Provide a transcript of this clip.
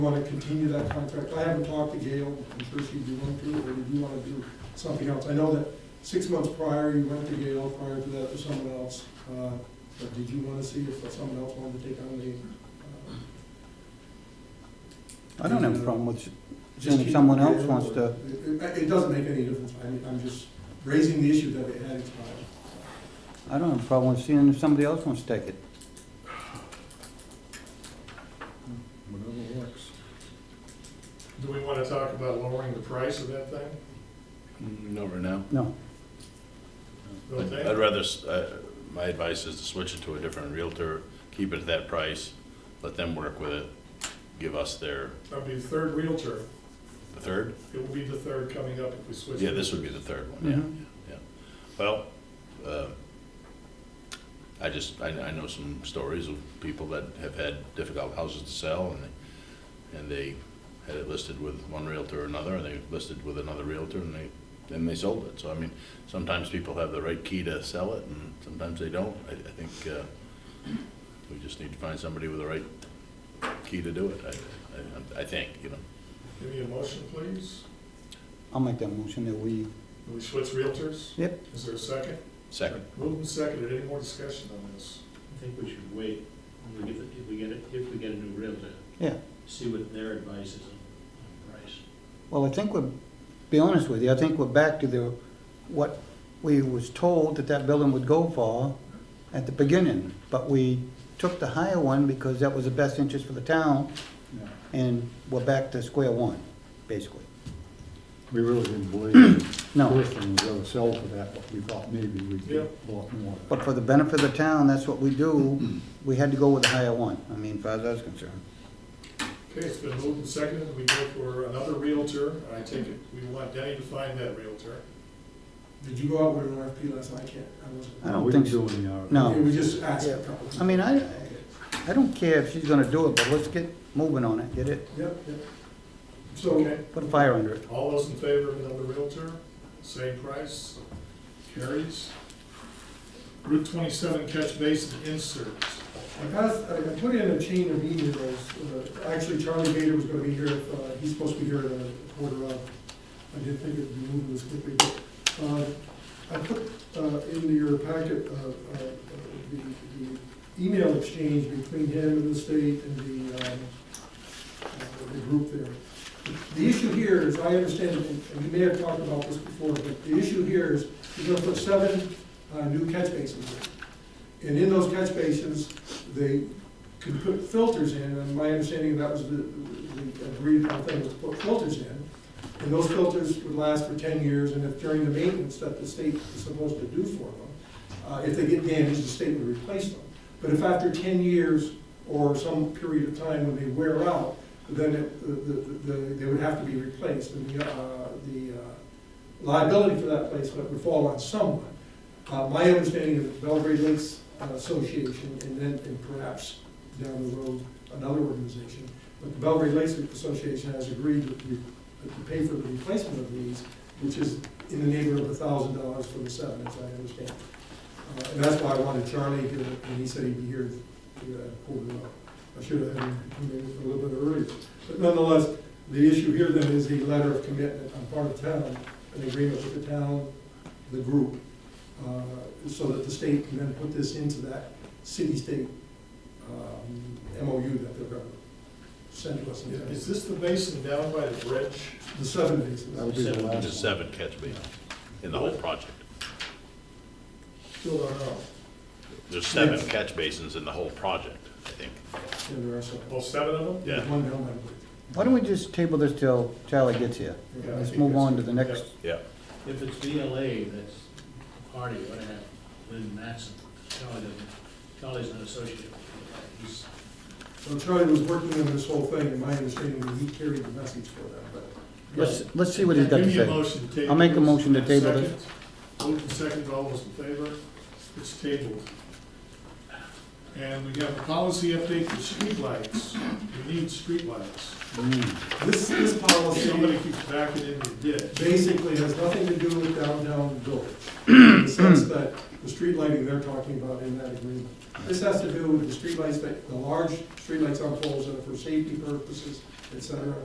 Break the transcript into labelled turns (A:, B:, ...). A: Want to continue that contract? I haven't talked to Gail, I'm sure she'd be willing to, or do you want to do something else? I know that six months prior, you went to Gail, prior to that to someone else, uh, but did you want to see if someone else wanted to take on the? uh,
B: I don't have a problem with,
A: just
B: Then if
A: keep
B: someone
A: Gail,
B: else wants
A: or-
B: to-
A: It, it- it doesn't make any difference, I mean, I'm just raising the issue that it had expired.
B: I don't have a problem with seeing if somebody else wants to take it.
C: Whatever works.
D: Do we want to talk about lowering the price of that thing?
E: Not right now.
B: No,
D: Don't
E: I'd
D: think?
E: I'd rather, s- uh, my advice is to switch it to a different Realtor, keep it at that price, let them work with it, give us their,
D: That'd be the third Realtor.
E: the third?
D: It will be the third coming up if we switch.
E: Yeah, this would be the third one, yeah, yeah. Well, uh, I just, I I know some stories of people that have had difficult houses to sell, and they, and they had it listed with one Realtor or another, and they listed with another Realtor, and they, then they sold it. So, I mean, sometimes people have the right key to sell it, and sometimes they don't. I I think uh, we just need to find somebody with the right key to do it, I- I I think, you know.
D: Give me a motion, please.
B: I'll make that motion that we,
D: Will we switch Realtors?
B: Yep.
D: Is there a second?
E: Second,
D: Moved and seconded. Any more discussion on this?
F: I think we should wait, when we get, the- if we get, it- if we get a new realtor,
B: yeah.
F: see what their advice is on on price.
B: Well, I think we're, be honest with you, I think we're back to the, what we was told that that building would go for at the beginning. But we took the higher one because that was the best interest for the town,
C: Yeah.
B: and we're back to square one, basically.
C: We really didn't believe the
B: No.
C: person was gonna sell for that, but we thought maybe we'd
D: Yeah.
C: get a lot more.
B: But for the benefit of the town, that's what we do, we had to go with the higher one, I mean, as far as I was concerned.
D: Okay, it's been moved and seconded. We go for another Realtor. I take it we want Denny to find that Realtor.
A: Did you go out with an RFP last night? I can't, I wasn't.
B: I don't
C: We
B: think
C: didn't
B: so.
C: do any RFP.
B: No.
A: We just asked a couple.
B: I mean, I, I don't care if she's gonna do it, but let's get moving on it, get it,
A: Yep, yep. So,
D: Okay.
B: put a fire under it.
D: All those in favor of another Realtor, same price, carries. Route twenty-seven catch basin inserts.
A: I passed, I I put in a chain of emails, uh, actually Charlie Gator was gonna be here, uh, he's supposed to be here at a quarter of, I didn't think it'd be moving this quickly, but, uh, I put, uh, in your packet, uh, uh, the, the email exchange between him and the state and the, um, uh, the group there. The issue here is, I understand, and we may have talked about this before, but the issue here is, you're gonna put seven, uh, new catch basins in. And in those catch basins, they could put filters in, and my understanding of that was the, the agreed upon thing was to put filters in. And those filters would last for ten years, and if during the maintenance that the state is supposed to do for them, uh, if they get damaged, the state would replace them. But if after ten years or some period of time when they wear out, then it, the, the, the- they would have to be replaced, and the, uh, the uh, liability for that placement would fall on someone. Uh, my understanding of the Belgrade Lakes uh, Association, and then, and perhaps down the road, another organization, but the Belgrade Lakes Association has agreed to, re- to pay for the replacement of these, which is in the neighborhood of a thousand dollars for the seven, as I understand. Uh, and that's why I wanted Charlie here, and he said he'd be here at quarter to, uh, I should have had him come in a little bit earlier. But nonetheless, the issue here then is the letter of commitment on part of town, an agreement with the town, the group, uh, so that the state can then put this into that city-state um, MOU that they're gonna send to us. in
D: Is
A: the-
D: this the basin down by the bridge?
A: The seven bases.
C: That would be the
F: Seven to
C: last.
E: there's seven catch basins in the whole project.
D: Still don't know.
E: There's seven catch basins in the whole project, I think.
A: And there are seven.
D: Well, seven of them?
E: Yeah.
A: One down, I believe.
B: Why don't we just table this till Charlie gets here?
D: Yeah, I
B: Let's
D: think
B: move
D: that's-
B: on to the next,
E: Yeah.
F: If it's VLA that's the party, what happened, Lynn Matson, Charlie doesn't, Charlie's not associated with that, he's,
A: So Charlie was working on this whole thing, and my understanding is he carried the message for that, but.
B: let's, let's see what he's got
D: Give
B: to
D: me a
B: say.
D: motion to table
B: I'll make a
D: this.
B: motion to table this.
D: Second. Moved and seconded, all those in favor? It's tabled. And we have a policy update for streetlights. We need streetlights.
A: This, this
D: Somebody
A: policy
D: keeps backing into the ditch.
A: basically has nothing to do with downtown village, in the sense that the street lighting they're talking about in that agreement. This has to do with the streetlights, that- the large streetlights on poles that are for safety purposes, et cetera,